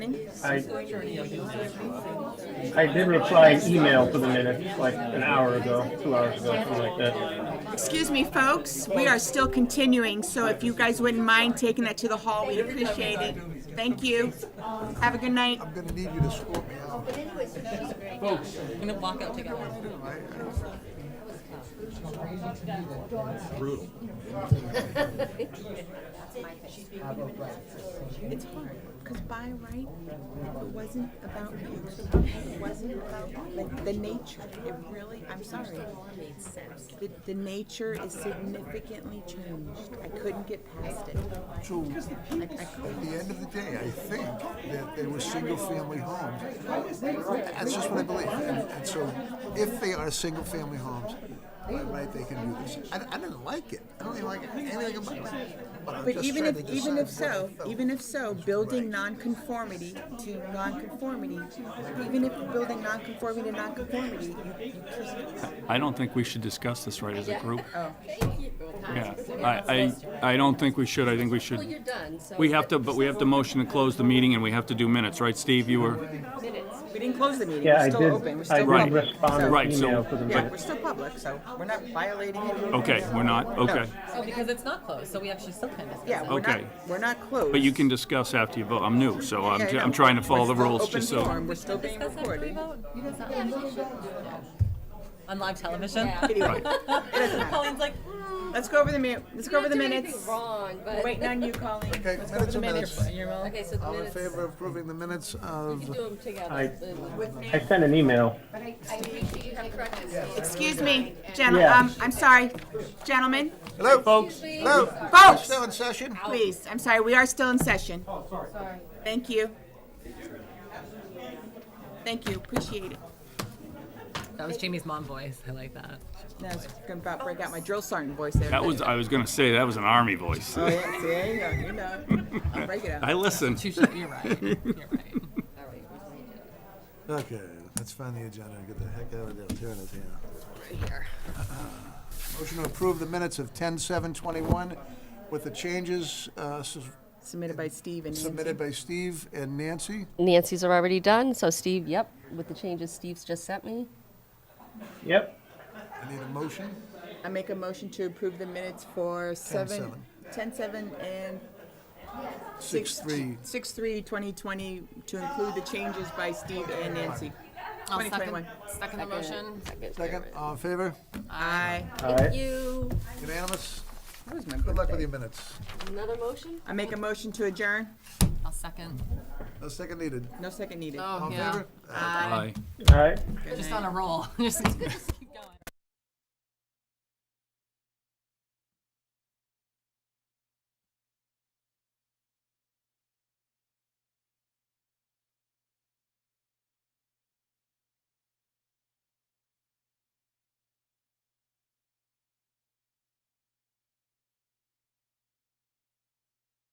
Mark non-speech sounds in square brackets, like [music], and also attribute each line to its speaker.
Speaker 1: I, I did reply an email for the minutes like an hour ago, two hours ago, something like that.
Speaker 2: Excuse me, folks, we are still continuing, so if you guys wouldn't mind taking that to the hall, we'd appreciate it. Thank you. Have a good night.
Speaker 3: I'm gonna need you to score me out.
Speaker 4: I'm gonna walk out together.
Speaker 5: Brutal.
Speaker 2: It's hard, because by right, it wasn't about you. It wasn't about like, the nature. It really, I'm sorry. The, the nature is significantly changed. I couldn't get past it.
Speaker 3: True. At the end of the day, I think that they were single-family homes. That's just what I believe. And, and so, if they are single-family homes, by right, they can do this. I, I didn't like it. I don't even like anything about it. But I'm
Speaker 2: But
Speaker 3: just
Speaker 2: even
Speaker 3: trying
Speaker 2: if,
Speaker 3: to
Speaker 2: even if
Speaker 3: decide
Speaker 2: so,
Speaker 3: what I felt.
Speaker 2: even if so, building nonconformity to nonconformity, even if you're building nonconformity to nonconformity, you, you can't.
Speaker 5: I don't think we should discuss this right as a group.
Speaker 2: Oh.
Speaker 5: Yeah, I, I, I don't think we should, I think we
Speaker 4: Well, you're
Speaker 5: should,
Speaker 4: done, so.
Speaker 5: we
Speaker 4: [laughs]
Speaker 5: have to, but we have to motion to close the meeting and we have to do minutes, right, Steve? You were,
Speaker 4: Minutes.
Speaker 2: We didn't close the meeting,
Speaker 1: Yeah,
Speaker 2: we're
Speaker 1: I
Speaker 2: still open, we're
Speaker 1: did, I
Speaker 2: still
Speaker 5: Right.
Speaker 1: did
Speaker 2: public.
Speaker 1: respond to an
Speaker 5: Right, so-
Speaker 1: email for the
Speaker 2: Yeah, we're
Speaker 1: minutes.
Speaker 2: still public, so we're not violating it.
Speaker 5: okay, we're not, okay.
Speaker 4: Oh, because it's not closed, so we actually still can discuss.
Speaker 2: Yeah, we're
Speaker 5: Okay.
Speaker 2: not, we're not closed.
Speaker 5: But you can discuss after you vote, I'm new, so I'm,
Speaker 2: Yeah, I
Speaker 5: ju-
Speaker 2: know.
Speaker 5: I'm trying to follow the
Speaker 2: We're still
Speaker 5: rules,
Speaker 2: open
Speaker 5: just so.
Speaker 2: forum, We're still being
Speaker 4: Discuss after we
Speaker 2: recorded.
Speaker 4: vote. You guys not On live television?
Speaker 5: Right.
Speaker 4: Colleen's like,
Speaker 2: Let's go over the minute, let's go over the minutes.
Speaker 4: Wrong, but.
Speaker 2: Waiting on you, Colleen.
Speaker 3: Okay,
Speaker 2: Let's go over
Speaker 3: minutes
Speaker 2: the
Speaker 3: are
Speaker 2: minutes.
Speaker 3: minutes.
Speaker 2: You're all-
Speaker 4: Okay, so the
Speaker 3: All in
Speaker 4: minutes,
Speaker 3: favor of approving the minutes of
Speaker 4: do them together.
Speaker 1: I-
Speaker 4: The-
Speaker 1: I sent an email.
Speaker 2: Excuse me, gentle,
Speaker 1: Yeah.
Speaker 2: um, I'm sorry, gentlemen,
Speaker 3: Hello,
Speaker 5: Folks,
Speaker 3: hello. We're
Speaker 2: Folks.
Speaker 3: still in session.
Speaker 2: Oh. please, I'm sorry, we are still in session. Thank you. Thank you, appreciate it.
Speaker 4: That was Jamie's mom voice, I like that.
Speaker 2: Now I was gonna about break out my drill sergeant voice there.
Speaker 5: that was, I was gonna say, that was an army
Speaker 2: [laughs]
Speaker 5: voice.
Speaker 2: Oh, yeah, see, there you go, you know, I'll break it
Speaker 5: I
Speaker 2: out.
Speaker 5: listened.
Speaker 4: [laughs] Touche, you're right, you're [laughs] right.
Speaker 3: Okay, let's find the agenda and get the heck out of there. Tearing it here. Uh-huh.
Speaker 4: Right here.
Speaker 3: Motion to approve the minutes of ten seven twenty-one with the changes uh, s-
Speaker 2: Submitted by Steve and Nancy.
Speaker 3: submitted by Steve and Nancy.
Speaker 4: Nancy's are already done, so Steve, yep, with the changes Steve's just sent me.
Speaker 1: Yep,
Speaker 3: I need a motion.
Speaker 2: I make a motion to approve the minutes for seven, ten seven and
Speaker 3: Six, three.
Speaker 2: six three twenty twenty to include the changes by Steve and Nancy. Twenty twenty one.
Speaker 6: Second the motion.
Speaker 3: Second, all in favor?
Speaker 2: Aye.
Speaker 1: all right.
Speaker 4: You,
Speaker 3: Unanimous?
Speaker 2: Where's my
Speaker 3: Good luck
Speaker 2: birthday?
Speaker 3: with your minutes.
Speaker 4: another motion?
Speaker 2: I make a motion to adjourn.
Speaker 6: I'll second.
Speaker 3: No second needed.
Speaker 2: No second needed.
Speaker 6: Oh,
Speaker 3: All in
Speaker 6: yeah.
Speaker 3: favor?
Speaker 5: Aye.
Speaker 1: All right.
Speaker 6: Just on a roll. [laughs] Just-